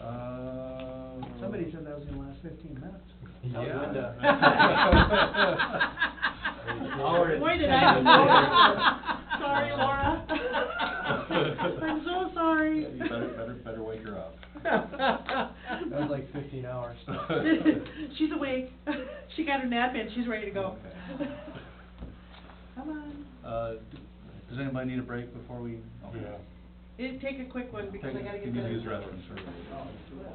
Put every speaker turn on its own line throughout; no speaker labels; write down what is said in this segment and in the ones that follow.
Uh,
Somebody said that was gonna last fifteen minutes.
Howard.
Why did I know? Sorry, Laura. I'm so sorry.
You better, better, better wake her up.
That was like fifteen hours.
She's awake. She got her nap in, she's ready to go.
Okay.
Come on.
Uh, d- does anybody need a break before we? okay.
It'd take a quick one because I
Take-
gotta
You
get
need to use
the.
restrooms or?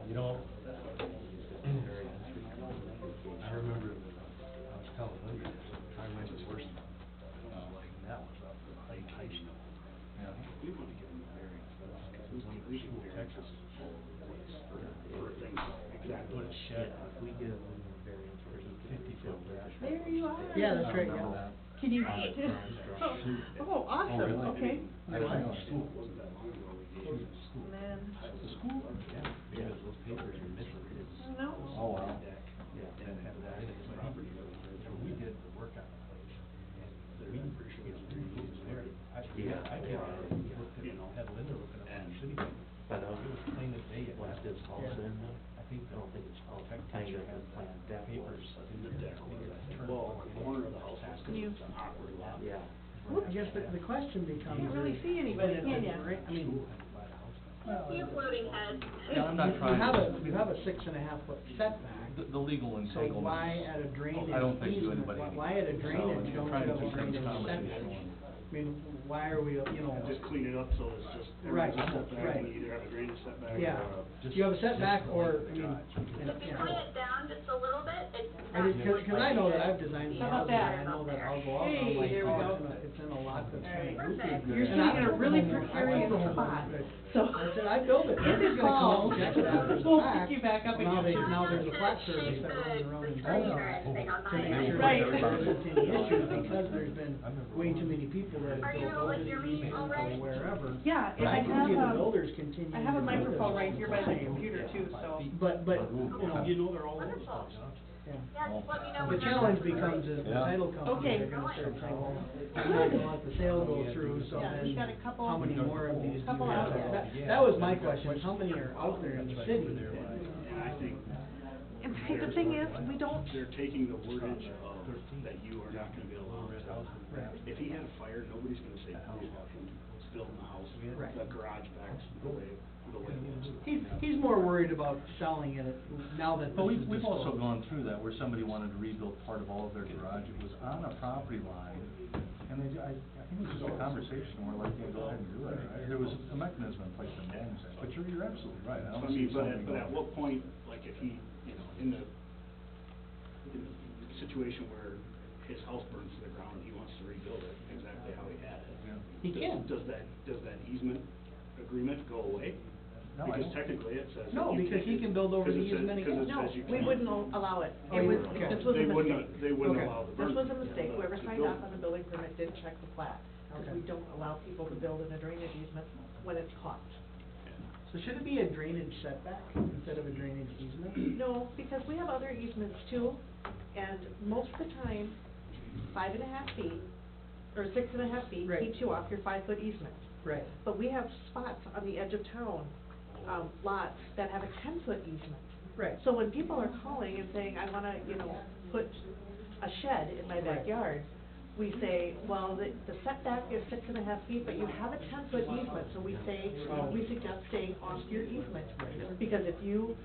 You know, I remember, I was telling Lydia, this, I went to worst, uh, like, that was up in like high school. We wanna get them married, because when we were in Texas, exactly, put a shed, if we get a little variance, there's a fifty foot variance.
There you are.
Yeah, that's right, yeah.
Remember
Can you
that?
read? Oh, awesome,
really?
okay.
I was in school, it wasn't that long ago, we did, in school.
And then,
The school, yeah, because those papers are missing, it's.
no.
Oh, wow.
Yeah, and have that as a property. So we did the work on the place. and We, you know, we moved there. I, yeah, I came out and looked at, had Linda looking at the city. I know. It was plain as day. Last is
Yeah.
I think, I don't think it's all tech teacher has planned papers. in the deck. Well, the corner of the house.
Can you-
Awkward lot.
Yeah.
I guess the, the question becomes.
Can't really
is-
see anybody,
is
can
it
ya?
right? I mean. well,
You're floating head.
Yeah, I'm not trying.
You have a, you have a six and a half foot setback,
The, the legal
so
entanglement.
why at a drainage
I don't think do
easement,
anybody.
why, why at a
any- so, I'm
drainage, don't you
trying
have
to
a
keep things
drainage
conversational.
setback? I mean, why are we, you know,
Just clean it up so it's just,
Right,
everyone's just set back,
right.
and you either have a drainage setback or
yeah,
a
do you have a setback or, I mean, and-
If you
yeah.
clean it down just a little bit, it's
I
not.
mean, cause, 'cause I know that I've designed some
How about
houses, and I
that?
know that I'll go out, and
Hey,
I'm like,
there we
oh,
go.
it's in a, it's in a lot that's kind of
Perfect.
goofy.
You're
And I
sitting in a
built
really
the home, I built
precarious
the home,
spot,
but-
so.
I said, I built it,
This
nobody's
is
gonna come
called-
and check it out, there's a
We'll
plaque.
pick you back up
Well, Now
again.
they, now there's a flat
Just
service that runs
shake the-
around
the
in
tree
town.
or anything on
To
my
make sure
end.
that
Right.
there's an issue, because there's been way too many people that have
Are you
built
gonna
buildings
lick your meat
or
already?
wherever.
Yeah, and
But
I
can see the
have, um,
builders continuing.
I have a
to do this
microphone right
all
here by the
time.
computer too, so.
But, but, you know,
You know, they're all over the
Wonderful.
place.
yeah.
Yeah, just let me
The
know when that's
challenge
ready.
becomes is the
Yeah.
title companies
Okay.
are gonna start saying, well, we're not gonna let the sale go through, so
Yeah,
then
we've got a couple-
how many more of these do
Couple
we have?
out there.
That, that was my question, is how many are out there in the city?
And I think
And see, the thing is, we don't,
they're taking the wordage of that you are not gonna be allowed
Right.
to. If he had a fire, nobody's gonna say, oh, it's built in the house,
Right.
the garage backs the way, the way it is.
He's, he's more worried about selling it now that
But
this
we've,
is
we've also
disclosed.
gone through that, where somebody wanted to rebuild part of all of their garage, it was on a property line, and they, I, I think it was just a conversation, where like, they go ahead and do it, right? There was a mechanism in place to manage that, but you're, you're absolutely right, I don't
So, I mean,
see
but
somebody
at, but at
going.
what point, like, if he, you know, in the, in the situation where his house burns to the ground and he wants to rebuild it exactly how he had it,
Yeah.
He
does-
can.
Does that, does that easement agreement go away?
No, I
Because
don't.
technically it says. that
No,
you
because he
can't-
can build over
'cause
the
it says-
easement
because
again.
it
no,
says you
we
can't.
wouldn't al- allow it.
Oh, you
It was,
wouldn't. Okay.
this was a
They
mistake.
wouldn't, they wouldn't
Okay.
allow the
This
burn.
was a
yeah,
mistake,
the-
whoever
to
signed
build.
off on the building permit didn't check the plat, because
Okay.
we don't allow people to build in a drainage easement when it's caught.
So should it be a drainage setback instead of a drainage easement?
No, because we have other easements too, and most of the time, five and a half feet, or six and a half feet,
Right.
keeps you off your five-foot easement.
Right.
But we have spots on the edge of town, um, lots that have a ten-foot easement.
Right.
So when people are calling and saying, I wanna, you know, put a shed in my
Right.
backyard, we say, well, the the setback is six and a half feet, but you have a ten-foot easement, so we say, we suggest staying off your easement. Because if you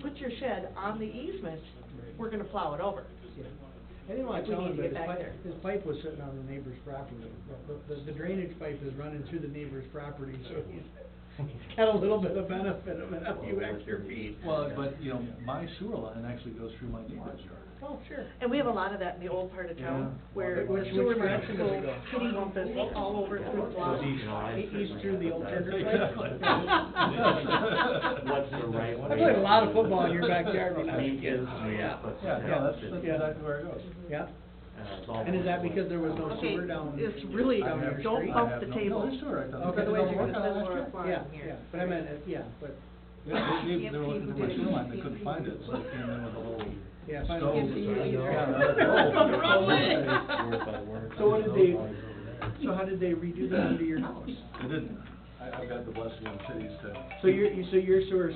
put your shed on the easement, we're gonna plow it over.
I didn't wanna
We
tell
need
him,
to
but
get
his
back there.
pipe, his pipe was sitting on the neighbor's property. The- The, the drainage pipe is running through the neighbor's property, so he's, he's got a little bit of benefit of a few extra feet.
Well, but, you know, my sewer line actually goes through my neighbor's yard.
Oh, sure.
And we have a lot of that in the old part of town,
Yeah.
Which-
where the
which
sewer lines
direction does it
go
go?
kitty bumpus all over through the block.
He- He's through the old tender
Exactly.
What's
pipe.
the right
I
way?
played a lot of football in your backyard when I was a kid.
Yeah.
Yeah, no, that's, that's
Yeah.
exactly where it goes.
Yeah, and is that because there was no
Okay,
sewer down?
it's really-
I
down
have-
your
don't
street?
I
bump
have
the
no-
table.
No, there's sewer right down there.
Okay, the way
Because
you're
I'm working on
gonna
send
that
Laura
strip.
fly.
Yeah,
Fine, here.
yeah, but I meant, it- yeah, but,
Yeah, they, they, they were
Can't
looking for my
see the
sewer line, they
can't
couldn't
see
find
the-
it, so they came in with a little.
yeah. if I-
stove.
Can't see you either.
Yeah,
That's
stove.
the wrong way.
So what did they, so how did they redo that under your house?
They didn't. I, I've got the blessing of cities to
So your, you- so your sewer